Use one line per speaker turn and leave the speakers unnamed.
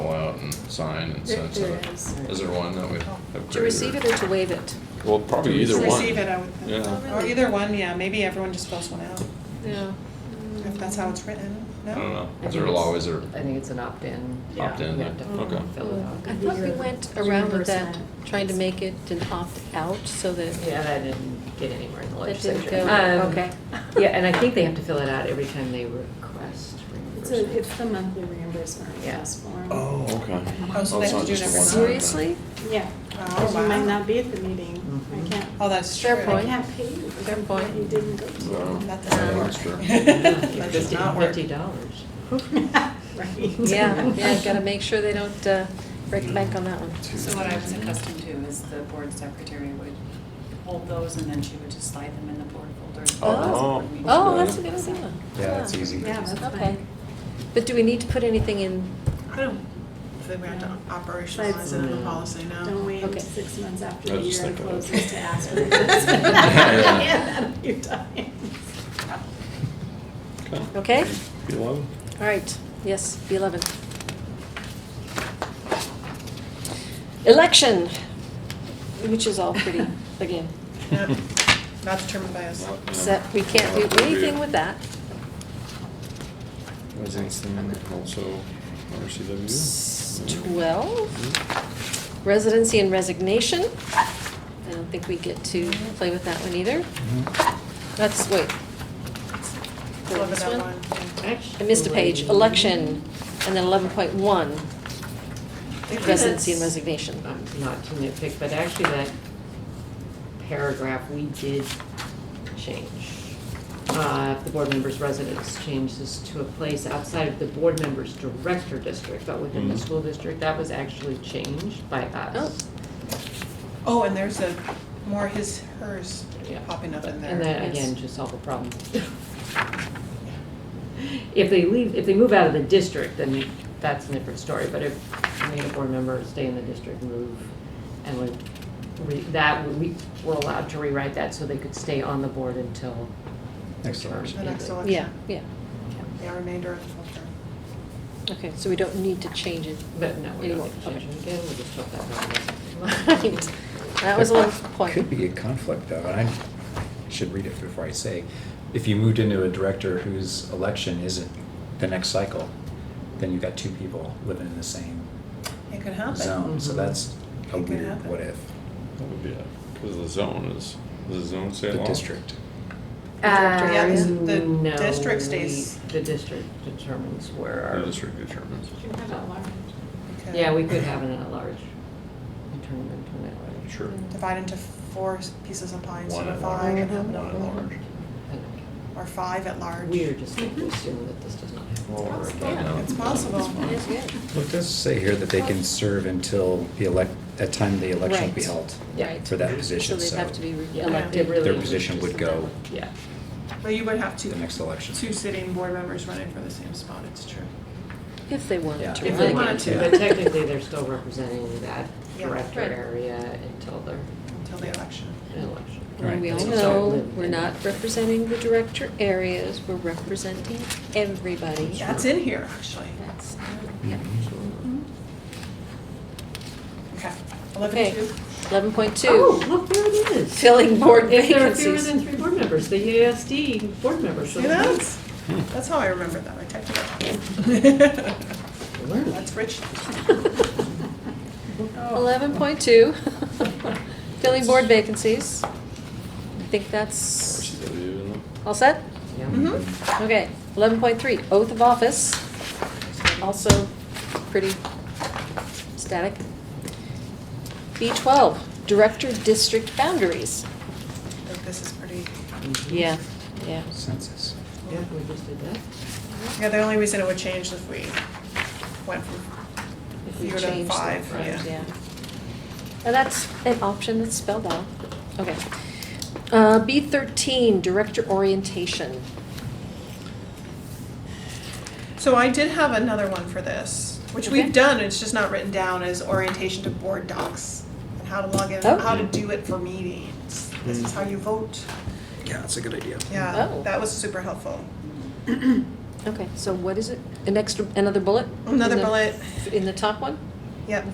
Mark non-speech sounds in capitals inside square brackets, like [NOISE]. sign and
There-
sent to
there
the,
is.
is there one that we have?
To receive it or to waive it?
Well, probably either
To
one.
receive it, I would think.
Yeah.
Oh,
Or
really?
either one, yeah, maybe everyone just fills one out,
Yeah.
if that's how it's written, no?
I don't know,
I
is
think
there a
it's-
law, is there
I think it's an opt-in.
Yeah.
opt-in
You
there?
have to
Okay.
fill it out.
I thought we went around with that, trying to make it an opt-out so that,
Yeah, that didn't get anywhere in the
That didn't
legislature.
go,
Um,
okay.
Yeah, and I
[LAUGHS]
think they have to fill it out every time they request
It's a,
reimbursement.
it's
[LAUGHS]
the monthly reimbursement request form.
Oh, okay.
Oh, so
Oh,
they
it's not
have to do it
just a
every
one-time thing.
month.
seriously?
Yeah,
Oh,
because you might
wow.
not be at the meeting.
Mm-hmm.
I
Mhm.
can't,
Oh, that's true.
Fair
I
point.
can't pay you
Fair
for
point.
what you didn't go to.
No.
That doesn't
Yeah,
work.
that's true.
[LAUGHS] That does
Fifty-
not work.
Fifty dollars.
[LAUGHS] Right.
Yeah,
[LAUGHS]
yeah, gotta make sure they don't uh, break the bank on that one.
So what I was accustomed to is the board secretary would hold those and then she would just slide them in the board folder.
Oh.
Oh, that's a good idea.
Yeah, that's easy.
Yeah, that's
Okay.
fine.
But do we need to put anything in,
I don't think we have to operationalize it in the policy now.
Don't wait
Okay.
six months
I
after the
was just
year
thinking of- [LAUGHS]
closes to ask [LAUGHS] for [LAUGHS]
Yeah.
reimbursement. You're dying.
okay?
Eleven?
All right, yes, B11. Election, which is all pretty, again,
[LAUGHS]
No, Not determined by us.
except we can't do anything with that.
Residency, also RCW.
12,
Mm-hmm.
residency and resignation. I don't think we get to play with that one either. That's, wait.
Eleven
This
oh
one?
one.
I missed a page, election, and then 11.1, residency and resignation.
Um, Not to nitpick, but actually that paragraph, we did change. Uh, if the board member's residence changes to a place outside of the board member's director district, but within the
Mhm.
school district, that was actually changed by us.
Oh, and there's a, more his, hers
Yeah.
popping up in there.
And that,
Yes.
again, to solve a problem. If they leave, if they move out of the district, then that's a different story, but if we had a board member stay in the district, move, and we, re- that, we were allowed to rewrite that so they could stay on the board until.
Next election.
The next election.
Yeah, yeah,
Yeah, remainder of the full term.
okay, so we don't need to change it.
But no, we don't
Anymore,
need to change it again, we just took
[LAUGHS]
that one.
Right. That was a little point.
Could be a conflict though, and I should read it before I say. If you moved into a director whose election isn't the next cycle, then you've got two people living in the same
It could happen.
zone, so
Mhm.
that's a
It could
weird
happen.
what if,
That would be it, because the zone is, does the zone say
the
law?
district.
director, yeah, the-
Um,
the
no,
district
we-
stays-
The district determines where
The
our.
district determines.
You have that one.
It could
Yeah, we could have an at-large, and turn them into an at-large.
Sure.
Divide into four pieces of pie instead
One
of
at
five
large,
and have
one
it
at
on,
large.
or five at large.
We are just
Mm-hmm.
going to assume that this does not happen.
Well, we're
possible.
done now.
It's possible.
It is good.
Well, it does say here that they can serve until the elect, at time the election will be
Right.
held
Yeah.
Right.
for that position,
So
so.
they'd have to be re-
Yeah.
elected.
It really
Their
is
position
just
would go
Yeah.
But you would have two,
the next election.
two sitting board members running for the same spot, it's true.
If they wanted
Yeah.
to.
If
run
they
it.
wanted to,
[LAUGHS]
but technically, they're still representing that
Yeah.
director
Right.
area until their
Until the election.
election.
[LAUGHS] And we all
Right.
know, we're not representing the director areas, we're representing everybody.
That's in here, actually.
That's-
Mm.
Okay,
Okay,
eleven two.
eleven point
Oh,
two,
look, there it is.
filling board
If there are fewer
vacancies.
than three board members, the E EASD board members.
See that? That's how I remember that, I typed it out. That's rich.
Oh.
[LAUGHS]
Oh,
Eleven point [LAUGHS] two, filling board vacancies. I think that's
RCW, isn't it?
all set?
Yeah.
Mm-hmm.
Okay, eleven point three, oath of office, also pretty static. B twelve, director district boundaries.
Like, this is pretty,
Mhm.
Yeah, yeah.
Census.
Yeah, we just did that.
yeah, the only reason it would change if we went from
If we
fewer than
change the-
five,
right,
yeah.
Yeah. And that's an option that's spelled out. Okay. Uh, B thirteen, director orientation.
So I did have another one for this, which
Okay.
we've done, it's just not written down, is orientation to board docs. And how to log in,
Oh.
how to do it for meetings. This is how you vote.
Yeah, that's a good idea.
Yeah,
Oh.
that was super helpful.
Okay, so what is it? An extra, another bullet?
Another
In the-
bullet.
In the top one?
Yep.